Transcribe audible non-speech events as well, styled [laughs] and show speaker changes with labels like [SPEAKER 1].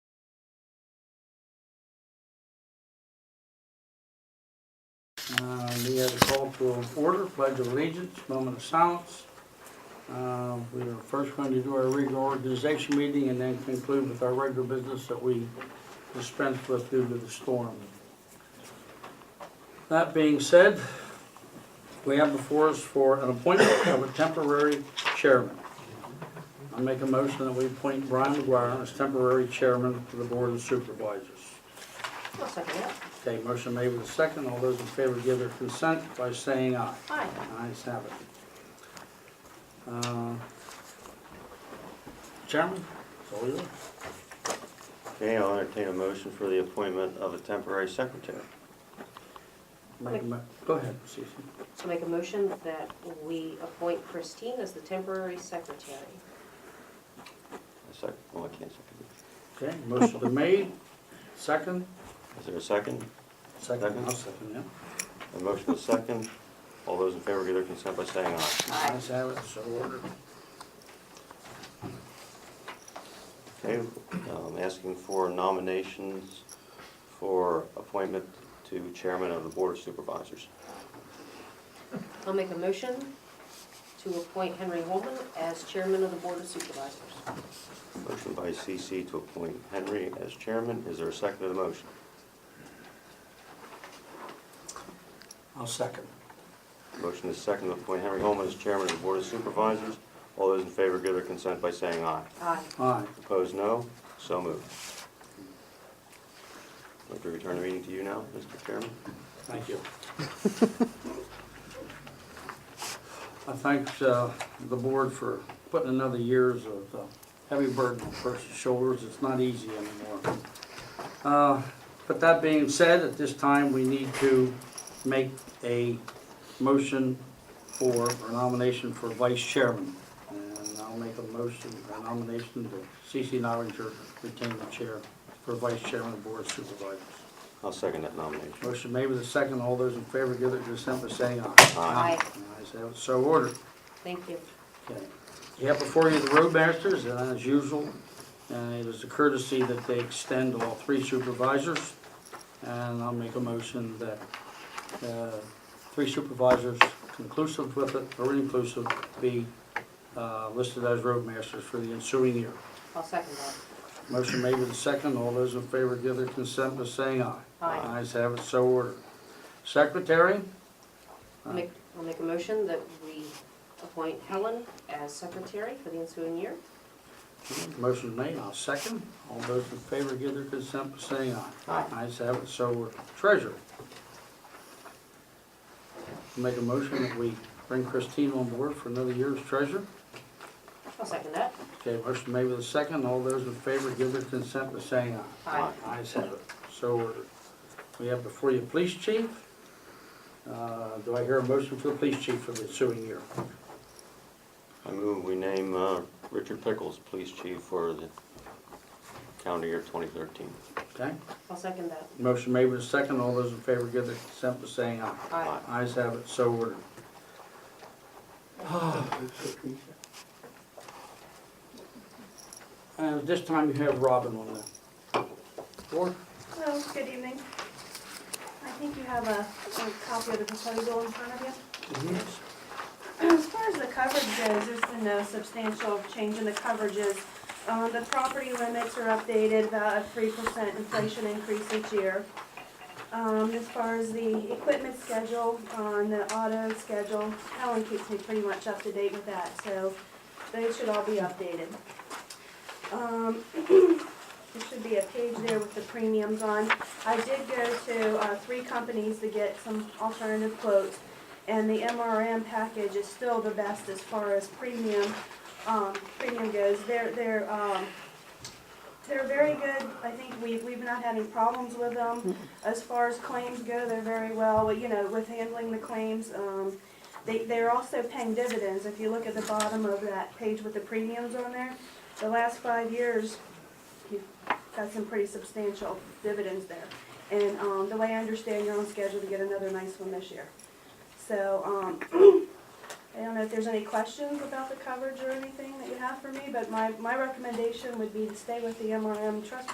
[SPEAKER 1] Uh, have the call to order, pledge of allegiance, moment of silence. Uh, We are first going to do our regular organization meeting and then conclude with our regular business that we dispensed with due to the storm. That being said, we have before us for an appointment of a temporary chairman. I make a motion that we appoint Brian McGuire as temporary chairman to the Board of Supervisors.
[SPEAKER 2] I'll second that.
[SPEAKER 1] Okay, motion made with a second. All those in favor give their consent by saying aye.
[SPEAKER 2] Aye.
[SPEAKER 1] Ayes have it. Uh, Chairman, it's all yours.
[SPEAKER 3] Okay, I'll entertain a motion for the appointment of a temporary secretary.
[SPEAKER 1] Make a mo- Go ahead, Cece.
[SPEAKER 2] So make a motion that we appoint Christine as the temporary secretary.
[SPEAKER 3] A sec, well, I can't second it.
[SPEAKER 1] Okay, motion been made, second,
[SPEAKER 3] Is there a second?
[SPEAKER 1] second,
[SPEAKER 3] Second.
[SPEAKER 1] I'll second, yeah.
[SPEAKER 3] A motion with a second. All those in favor give their consent by saying aye.
[SPEAKER 2] Aye.
[SPEAKER 1] Ayes have it, so ordered.
[SPEAKER 3] Okay, um, asking for nominations for appointment to chairman of the board of supervisors.
[SPEAKER 2] I'll make a motion to appoint Henry Holman as chairman of the Board of Supervisors.
[SPEAKER 3] Motion by CC to appoint Henry as chairman. Is there a second to the motion?
[SPEAKER 1] I'll second.
[SPEAKER 3] Motion is second to appoint Henry Holman as chairman of the board of supervisors. All those in favor give their consent by saying aye.
[SPEAKER 2] Aye.
[SPEAKER 1] Aye.
[SPEAKER 3] Opposed, no. So moved. I'd like to return the meeting to you now, Mr. Chairman.
[SPEAKER 1] Thank you. [laughs] I thank uh, the board for putting another years of uh, heavy burden on a person's shoulders. It's not easy anymore. Uh, But that being said, at this time, we need to make a motion for a nomination for vice chairman. And I'll make a motion, a nomination to C.C. Novinger retain the chair for vice chairman of the board of supervisors.
[SPEAKER 3] I'll second that nomination.
[SPEAKER 1] Motion made with a second. All those in favor give their consent by saying aye.
[SPEAKER 2] Aye.
[SPEAKER 1] Ayes have it, so ordered.
[SPEAKER 2] Thank you.
[SPEAKER 1] Okay. You have before you the roadmasters, and as usual, uh, it is a courtesy that they extend to all three supervisors. And I'll make a motion that uh, three supervisors conclusive with it, or inclusive, be uh, listed as roadmasters for the ensuing year.
[SPEAKER 2] I'll second that.
[SPEAKER 1] Motion made with a second. All those in favor give their consent by saying aye.
[SPEAKER 2] Aye.
[SPEAKER 1] Ayes have it, so ordered. Secretary?
[SPEAKER 2] I'll make, I'll make a motion that we appoint Helen as secretary for the ensuing year.
[SPEAKER 1] Motion made, I'll second. All those in favor give their consent by saying aye.
[SPEAKER 3] Aye.
[SPEAKER 1] Ayes have it, so ordered. Treasurer. Make a motion that we bring Christine on board for another year as treasurer.
[SPEAKER 2] I'll second that.
[SPEAKER 1] Okay, motion made with a second. All those in favor give their consent by saying aye.
[SPEAKER 2] Aye.
[SPEAKER 1] Ayes have it, so ordered. We have before you police chief. Uh, Do I hear a motion for the police chief for the ensuing year?
[SPEAKER 3] I move we name uh, Richard Pickles police chief for the calendar year 2013.
[SPEAKER 1] Okay?
[SPEAKER 2] I'll second that.
[SPEAKER 1] Motion made with a second. All those in favor give their consent by saying aye.
[SPEAKER 2] Aye.
[SPEAKER 1] Ayes have it, so [sighs] ordered. Uh, this time you have Robin on the floor.
[SPEAKER 4] Hello, good evening. I think you have a a copy of the proposal in front of you.
[SPEAKER 1] mm-hmm.
[SPEAKER 4] As far as the coverage goes, there's been no substantial change in the coverages. Uh, The property limits are updated, about a 3% inflation increase each year. Um, As far as the equipment schedule, on the auto schedule, Helen keeps me pretty much up to date with that, so those should all be updated. Um, [clears throat] There should be a page there with the premiums on. I did go to uh, three companies to get some alternative quotes, and the MRM package is still the best as far as premium, um, premium goes. They're, they're, um, they're very good. I think we've, we've not had any problems with them. As far as claims go, they're very well, you know, with handling the claims. Um, they, they're also paying dividends. If you look at the bottom of that page with the premiums on there, the last five years, you've got some pretty substantial dividends there. And um, the way I understand, you're on schedule to get another nice one this year. So um, [clears throat] I don't know if there's any questions about the coverage or anything that you have for me, but my, my recommendation would be to stay with the MRM trust